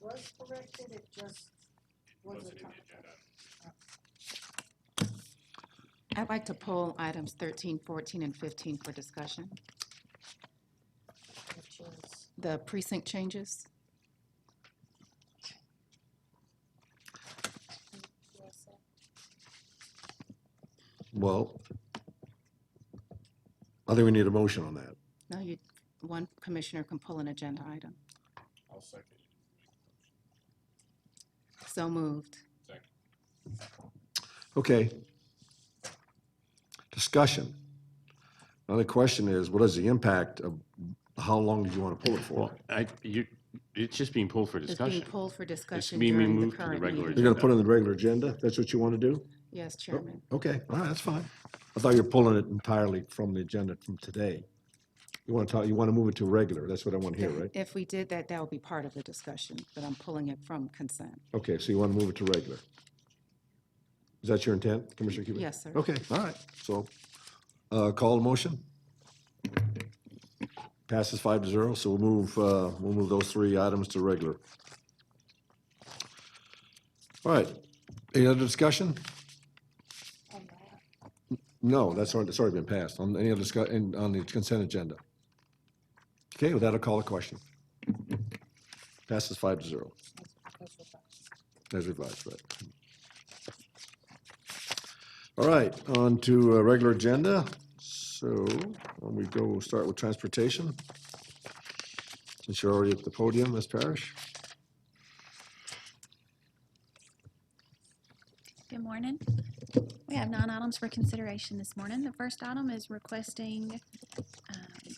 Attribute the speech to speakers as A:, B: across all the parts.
A: was corrected, it just was a
B: wasn't in
A: typo.
B: the agenda.
C: I'd like to pull items 13, 14, and 15 for discussion.
A: which is-
C: The precinct changes,
A: yes, uh,
D: Well, I think we need a motion on that.
C: no, you, one commissioner can pull an agenda item.
B: I'll second.
C: So moved.
B: Second.
D: Okay. Discussion. Another question is, what is the impact of, how long did you want to pull it for?
E: Well, I, you, it's just being pulled for
C: It's being
E: discussion.
C: pulled for discussion
E: being
C: during the
E: removed to the
C: current
E: regular
C: meeting.
D: You're going to put it on the regular agenda? That's what you want to do?
C: Yes, Chairman.
D: Okay, all right, that's fine. I thought you were pulling it entirely from the agenda from today. You want to talk, you want to move it to regular, that's what I want to hear, right?
C: If we did that, that would be part of the discussion, but I'm pulling it from consent.
D: Okay, so you want to move it to regular? Is that your intent, Commissioner Cubic?
C: Yes, sir.
D: Okay, all right, so, uh, call the motion. Passes five to zero, so we'll move, uh, we'll move those three items to regular. All right, any other discussion?
A: on that.
D: No, that's already, that's already been passed, on any other discuss, in- on the consent agenda. Okay, with that, I'll call a question. Passes five to zero.
A: That's- that's what that-
D: As revised, right. All right, on to uh, regular agenda. So when we go, we'll start with transportation. Since you're already at the podium, Ms. Parrish.
F: Good morning. We have nine items for consideration this morning. The first item is requesting um,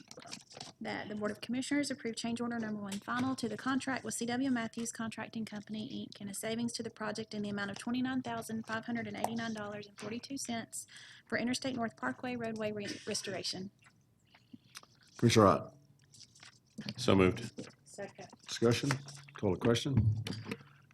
F: that the Board of Commissioners approve change order number one final to the contract with CW Matthews Contracting Company, Inc., and a savings to the project in the amount of twenty-nine thousand, five hundred and eighty-nine dollars and forty-two cents for Interstate North Parkway roadway re- restoration.
D: Commissioner Ott,
E: So moved.
A: Second,
D: discussion, call a question.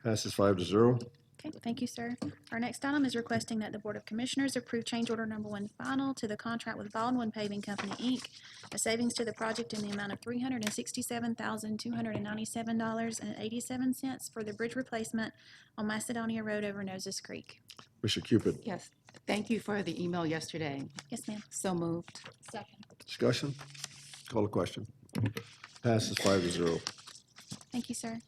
D: Passes five to zero.
F: Okay, thank you, sir. Our next item is requesting that the Board of Commissioners approve change order number one final to the contract with Baldwin Paving Company, Inc., a savings to the project in the amount of three hundred and sixty-seven thousand, two hundred and ninety-seven dollars and eighty-seven cents for the bridge replacement on Macedonia Road over Noses Creek.
D: Commissioner Cupid,
C: Yes, thank you for the email yesterday.
F: Yes, ma'am.
C: So moved.
A: second,
D: discussion, call a question. Passes five to zero.
F: Thank you, sir.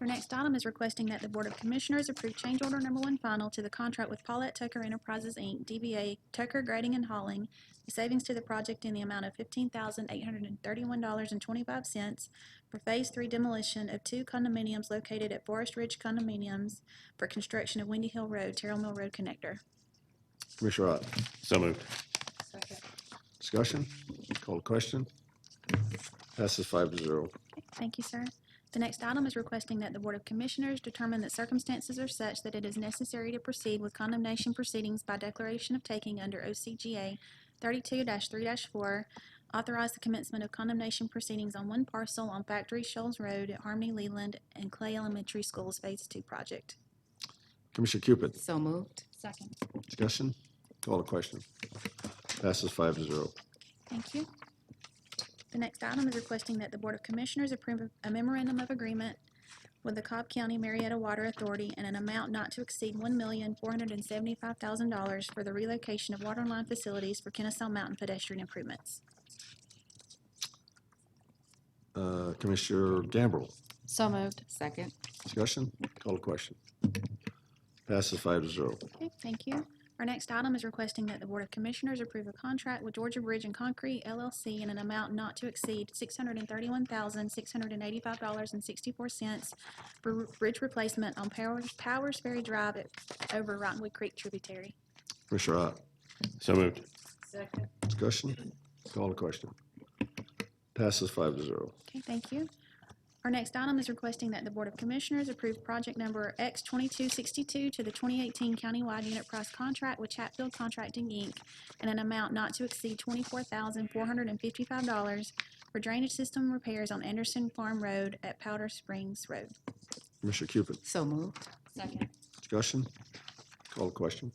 F: Our next item is requesting that the Board of Commissioners approve change order number one final to the contract with Paulette Tucker Enterprises, Inc., DBA Tucker Grading and Hauling, the savings to the project in the amount of fifteen thousand eight hundred and thirty-one dollars and twenty-five cents for Phase Three demolition of two condominiums located at Forest Ridge Condominiums for construction of Windy Hill Road, Terrell Mill Road Connector.
D: Commissioner Ott,
E: So moved.
A: second,
D: discussion, call a question. Passes five to zero.
F: Okay, Thank you, sir. The next item is requesting that the Board of Commissioners determine that circumstances are such that it is necessary to proceed with condemnation proceedings by declaration of taking under OCGA thirty-two three four, authorize the commencement of condemnation proceedings on one parcel on Factory Shoals Road at Harmony Leland and Clay Elementary Schools Phase Two project.
D: Commissioner Cupid,
C: So moved.
A: second,
D: discussion? Call the question. Passes five to zero.
F: Thank you. The next item is requesting that the Board of Commissioners approve a memorandum of agreement with the Cobb County Marietta Water Authority in an amount not to exceed one million, four hundred and seventy-five thousand dollars for the relocation of water line facilities for Kennesaw Mountain pedestrian improvements.
D: Uh, Commissioner Gambrel,
C: So moved. Second.
D: discussion? Call the question. Passes five to zero.
F: Okay, thank you. Our next item is requesting that the Board of Commissioners approve a contract with Georgia Bridge and Concrete LLC in an amount not to exceed six hundred and thirty-one thousand, six hundred and eighty-five dollars and sixty-four cents for r- bridge replacement on Powers, Powers Ferry Drive at- over Rottenwood Creek tributary.
D: Commissioner Ott,
E: So moved.
A: second,
D: discussion? Call the question. Passes five to zero.
F: Okay, thank you. Our next item is requesting that the Board of Commissioners approve project number X twenty-two sixty-two to the twenty eighteen countywide unit price contract with Chatfield Contracting, Inc. in an amount not to exceed twenty-four thousand four hundred and fifty-five dollars for drainage system repairs on Anderson Farm Road at Powder Springs Road.
D: Commissioner Cupid,
C: So moved.
A: second,
D: discussion? Call the question.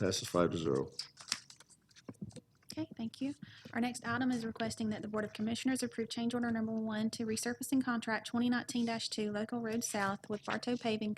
D: Passes five to zero.
F: Okay, thank you. Our next item is requesting that the Board of Commissioners approve change order number one to resurfacing contract 2019-2 Local Road South with Bartow Paving